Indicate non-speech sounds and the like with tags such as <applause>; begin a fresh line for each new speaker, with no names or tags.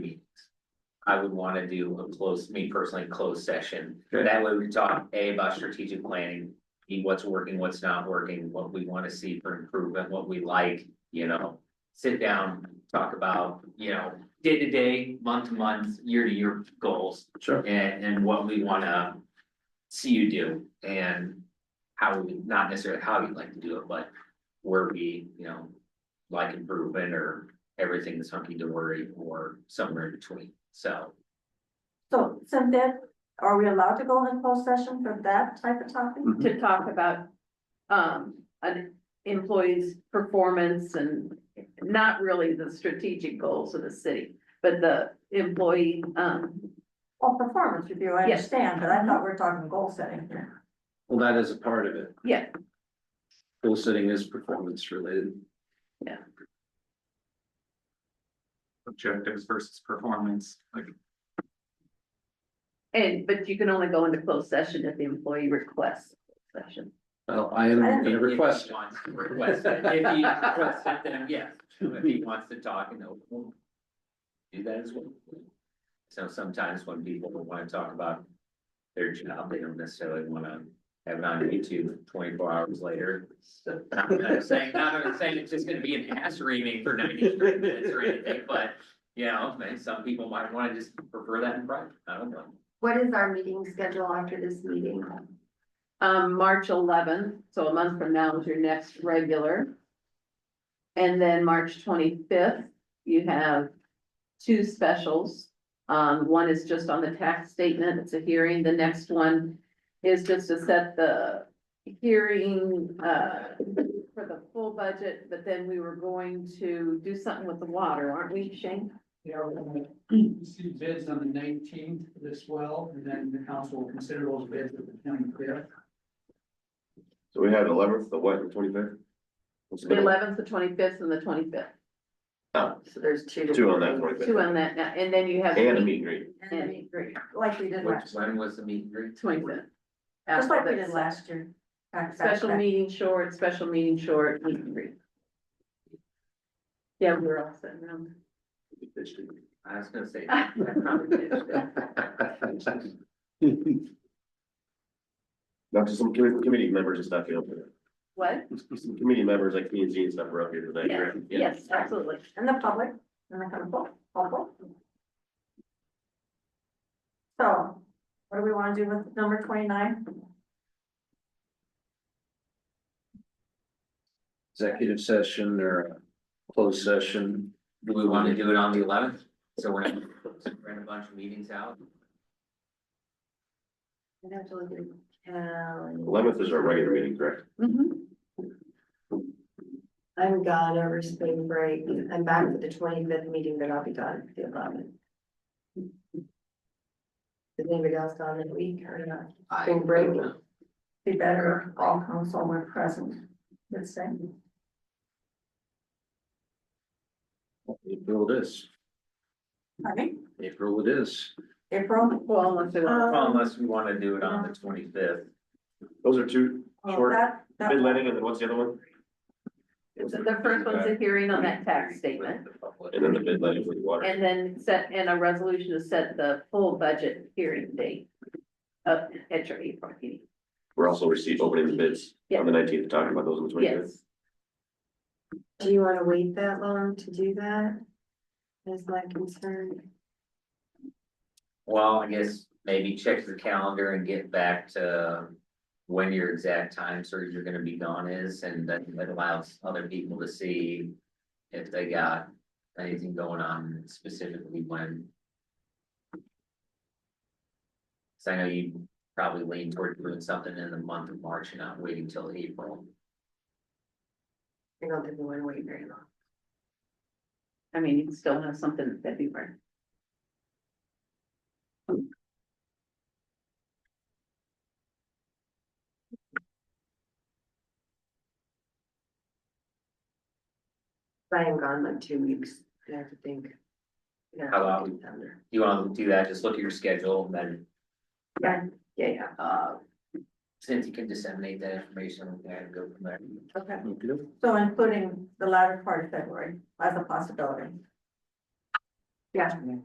I would wanna do a close, me personally, closed session.
Okay.
That way we talk A about strategic planning, B what's working, what's not working, what we wanna see for improvement, what we like, you know. Sit down, talk about, you know, day to day, month to month, year to year goals
Sure.
and and what we wanna. See you do and how we, not necessarily how you'd like to do it, but where we, you know. Like improvement or everything that's hunky dory or somewhere in between, so.
So, since that, are we allowed to go in closed session for that type of topic?
Mhm.
to talk about um an employee's performance and not really the strategic goals of the city, but the employee um
Well, performance review, I
Yes.
understand, but I thought we were talking goal setting here.
Well, that is a part of it.
Yeah.
Goal setting is performance related.
objectives versus performance, like
and but you can only go into closed session if the employee requests session.
Well, I am gonna
If he
request. it.
Wants to request it, if he requests it, then yes, if he wants to talk and open. Do that as well. So sometimes when people wanna talk about their job, they don't necessarily wanna have it on YouTube twenty-four hours later. So, I'm not saying, not that I'm saying it's just gonna be an ass reading for ninety minutes or anything, but, you know, man, some people might wanna just prefer that in private, I don't know.
What is our meeting schedule after this meeting?
Um, March eleventh, so a month from now is your next regular. And then March twenty-fifth, you have two specials. Um, one is just on the tax statement, it's a hearing, the next one is just to set the hearing, uh, for the full budget, but then we were going to do something with the water, aren't we, Shane?
They are gonna receive bids on the nineteenth as well, and then the council will consider those bids at the
<laughs>
twenty-fifth.
So we had eleventh, the what, the twenty-fifth?
The eleventh, the twenty-fifth, and the twenty-fifth,
So there's two.
Two on that twenty-fifth.
two on that, now, and then you have.
And a meet and greet.
And we agree, like we did
Which,
last,
when was the meet and greet?
Twenty-fifth.
just like we did last year. Back, back,
Special
back.
meeting short, special meeting short, meet and greet. Yeah, we were all sitting around.
I was gonna say. I probably did.
Not just some committee, committee members and stuff, you know,
What?
some committee members like P and Z and stuff were up here today.
Yes,
correct? Yeah.
yes, absolutely.
And the public, and the council, council. So, what do we wanna do with number twenty-nine?
Executive session or a closed session.
Do we wanna do it on the eleventh? So we're not, run a bunch of meetings out?
I'd have to look at, um,
Eleventh is our regular meeting, correct?
Mhm.
I'm gone over spring break. I'm back for the twenty-fifth meeting, but I'll be gone for the eleventh. Is anybody else gone in a week or not?
I
Spring break?
Be better if all council were present, let's say.
April it is.
I mean,
April it is.
April,
Well, unless they want,
Well, Unless we wanna do it on the twenty-fifth.
Those are two
oh,
short,
that, that.
bid letting, and then what's the other one?
Um, the first one's a hearing on that tax statement,
And then the bid letting for the water.
and then set, and a resolution to set the full budget hearing date of, at your April meeting,
We're also receiving, opening the bids on the nineteenth, talking about those on the twenty-fifth.
yes.
Do you wanna wait that long to do that? Is my concern.
Well, I guess maybe check the calendar and get back to um, when your exact time surge you're gonna be gone is, and then that allows other people to see if they got anything going on specifically when. Cause I know you probably lean toward doing something in the month of March and not waiting till April.
I don't think we wanna wait very long.
I mean, you can still have something in February.
I am gone like two weeks. I have to think. Yeah.
How about- You wanna do that, just look at your schedule, and then
Yeah, yeah.
uh. Cynthia can disseminate that information and go from there.
Okay,
Okay.
so including the latter part of February as a possibility.